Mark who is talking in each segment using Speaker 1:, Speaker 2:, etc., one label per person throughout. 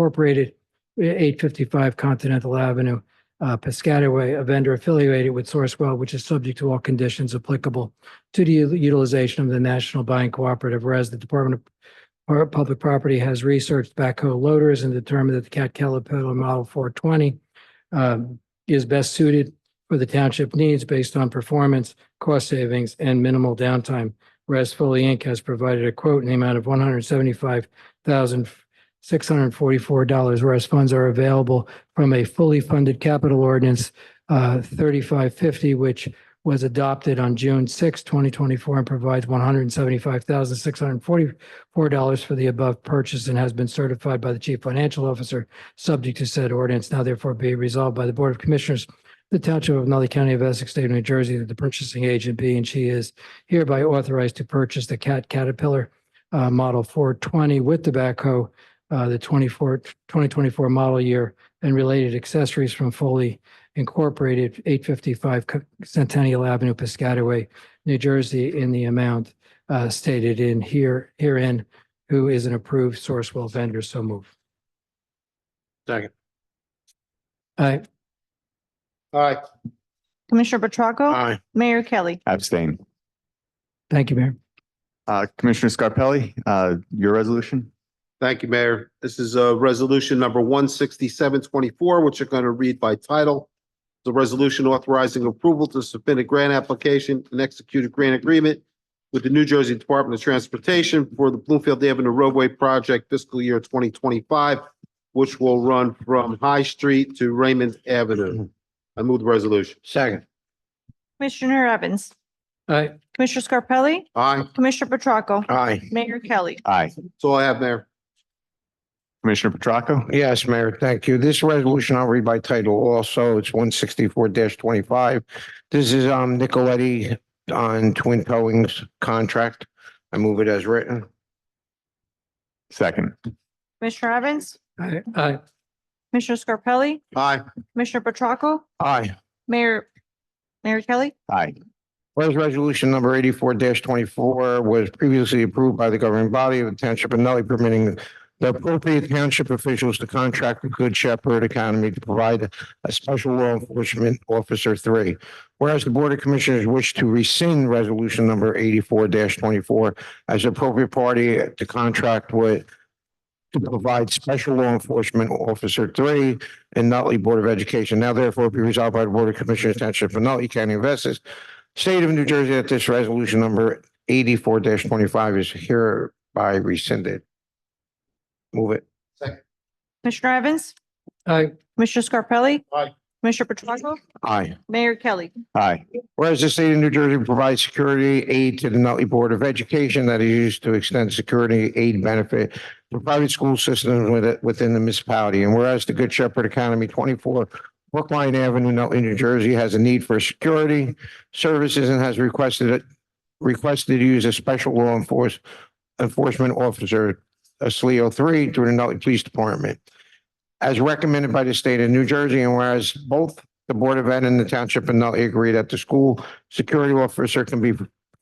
Speaker 1: Incorporated, eight fifty-five Continental Avenue, uh, Piscataway, a vendor affiliated with Sourcewell, which is subject to all conditions applicable to the utilization of the National Buying Cooperative, whereas the Department of Pu- Public Property has researched backhoe loaders and determined that the Cat Caterpillar Model four twenty um, is best suited for the township needs based on performance, cost savings, and minimal downtime. Whereas Foley Inc. has provided a quote in the amount of one hundred seventy-five thousand six hundred forty-four dollars, whereas funds are available from a fully funded capital ordinance uh, thirty-five fifty, which was adopted on June 6, twenty twenty-four, and provides one hundred seventy-five thousand six hundred forty-four dollars for the above purchase and has been certified by the chief financial officer, subject to said ordinance. Now therefore be resolved by the Board of Commissioners the Township of Nutley County of Essex, State of New Jersey, that the purchasing agent be and she is hereby authorized to purchase the Cat Caterpillar uh, Model 420 with the backhoe, uh, the 24, 2024 model year and related accessories from Foley Incorporated, 855 Co- Centennial Avenue, Piscataway, New Jersey, in the amount uh, stated in here, herein, who is an approved Sourcewell vendor, so move.
Speaker 2: Second.
Speaker 1: Aye.
Speaker 2: Aye.
Speaker 3: Commissioner Petracca,
Speaker 2: Aye.
Speaker 3: Mayor Kelly.
Speaker 4: Abstain.
Speaker 1: Thank you, Mayor.
Speaker 4: Uh, Commissioner Scarpelli, uh, your resolution?
Speaker 2: Thank you, Mayor. This is uh resolution number one sixty-seven twenty-four, which you're going to read by title. The resolution authorizing approval to submit a grant application and execute a grant agreement with the New Jersey Department of Transportation for the Bloomfield Avenue roadway project fiscal year twenty twenty-five, which will run from High Street to Raymond Avenue. I move the resolution.
Speaker 5: Second,
Speaker 3: Commissioner Evans,
Speaker 1: Aye.
Speaker 3: Commissioner Scarpelli,
Speaker 2: Aye.
Speaker 3: Commissioner Petracca,
Speaker 5: aye.
Speaker 3: Mayor Kelly.
Speaker 4: Aye.
Speaker 2: That's all I have, Mayor.
Speaker 4: Commissioner Petracca?
Speaker 5: Yes, Mayor, thank you. This resolution I'll read by title also. It's one sixty-four twenty-five. This is um Nicoletti on Twin Towing's contract. I move it as written.
Speaker 4: Second.
Speaker 3: Commissioner Evans,
Speaker 1: Aye. Aye.
Speaker 3: Commissioner Scarpelli,
Speaker 2: Aye.
Speaker 3: Commissioner Petracca,
Speaker 5: Aye.
Speaker 3: Mayor, Mayor Kelly.
Speaker 4: Aye.
Speaker 5: Whereas resolution number eighty-four twenty-four was previously approved by the governing body of the township of Nutley permitting the appropriate township officials to contract with Good Shepherd Academy to provide a special law enforcement officer three. Whereas the Board of Commissioners wish to rescind resolution number eighty-four twenty-four as appropriate party to contract with to provide special law enforcement officer three and Nutley Board of Education. Now therefore be resolved by the Board of Commissioners Township of Nutley County of Essex State of New Jersey that this resolution number eighty-four twenty-five is hereby rescinded. Move it.
Speaker 3: Commissioner Evans,
Speaker 1: Aye.
Speaker 3: Commissioner Scarpelli.
Speaker 2: Aye.
Speaker 3: Commissioner Petracca,
Speaker 5: Aye.
Speaker 3: Mayor Kelly.
Speaker 4: Aye.
Speaker 5: Whereas the state of New Jersey provides security aid to the Nutley Board of Education that is used to extend security aid benefit to private school systems with- within the municipality. And whereas the Good Shepherd Academy twenty-four Brookline Avenue, Nutley, New Jersey has a need for security services and has requested requested to use a special law enforce enforcement officer, a SLEO three, through the Nutley Police Department. As recommended by the state of New Jersey, and whereas both the Board of Ed and the Township of Nutley agree that the school security officer can be,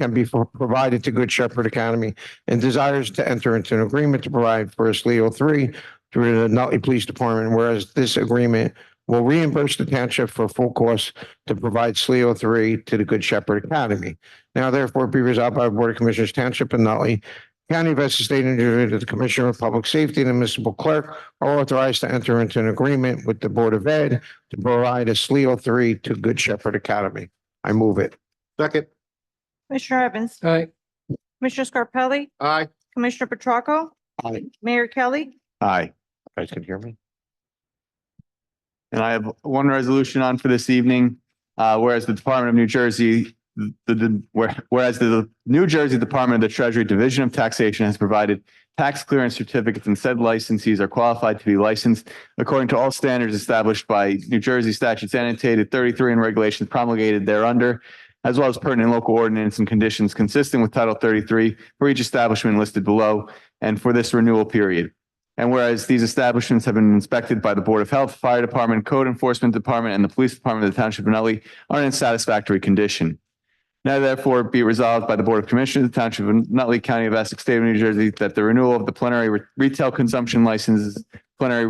Speaker 5: can be provided to Good Shepherd Academy and desires to enter into an agreement to provide for a SLEO three through the Nutley Police Department, whereas this agreement will reimburse the township for full costs to provide SLEO three to the Good Shepherd Academy. Now therefore be resolved by the Board of Commissioners Township of Nutley, County of Essex State of New Jersey, that the Commissioner of Public Safety and the municipal clerk are authorized to enter into an agreement with the Board of Ed to provide a SLEO three to Good Shepherd Academy. I move it.
Speaker 2: Second.
Speaker 3: Commissioner Evans,
Speaker 1: Aye.
Speaker 3: Commissioner Scarpelli,
Speaker 2: Aye.
Speaker 3: Commissioner Petracca,
Speaker 5: Aye.
Speaker 3: Mayor Kelly.
Speaker 4: Aye.
Speaker 5: You guys can hear me?
Speaker 4: And I have one resolution on for this evening. Uh, whereas the Department of New Jersey, the, the, where- whereas the New Jersey Department of the Treasury Division of Taxation has provided tax clearance certificates and said licensees are qualified to be licensed according to all standards established by New Jersey statutes annotated thirty-three and regulations promulgated thereunder, as well as pertinent local ordinance and conditions consistent with Title thirty-three for each establishment listed below and for this renewal period. And whereas these establishments have been inspected by the Board of Health, Fire Department, Code Enforcement Department, and the Police Department of the Township of Nutley are in satisfactory condition. Now therefore be it resolved by the Board of Commissioners of the Township of Nutley County of Essex State of New Jersey that the renewal of the plenary re- retail consumption licenses plenary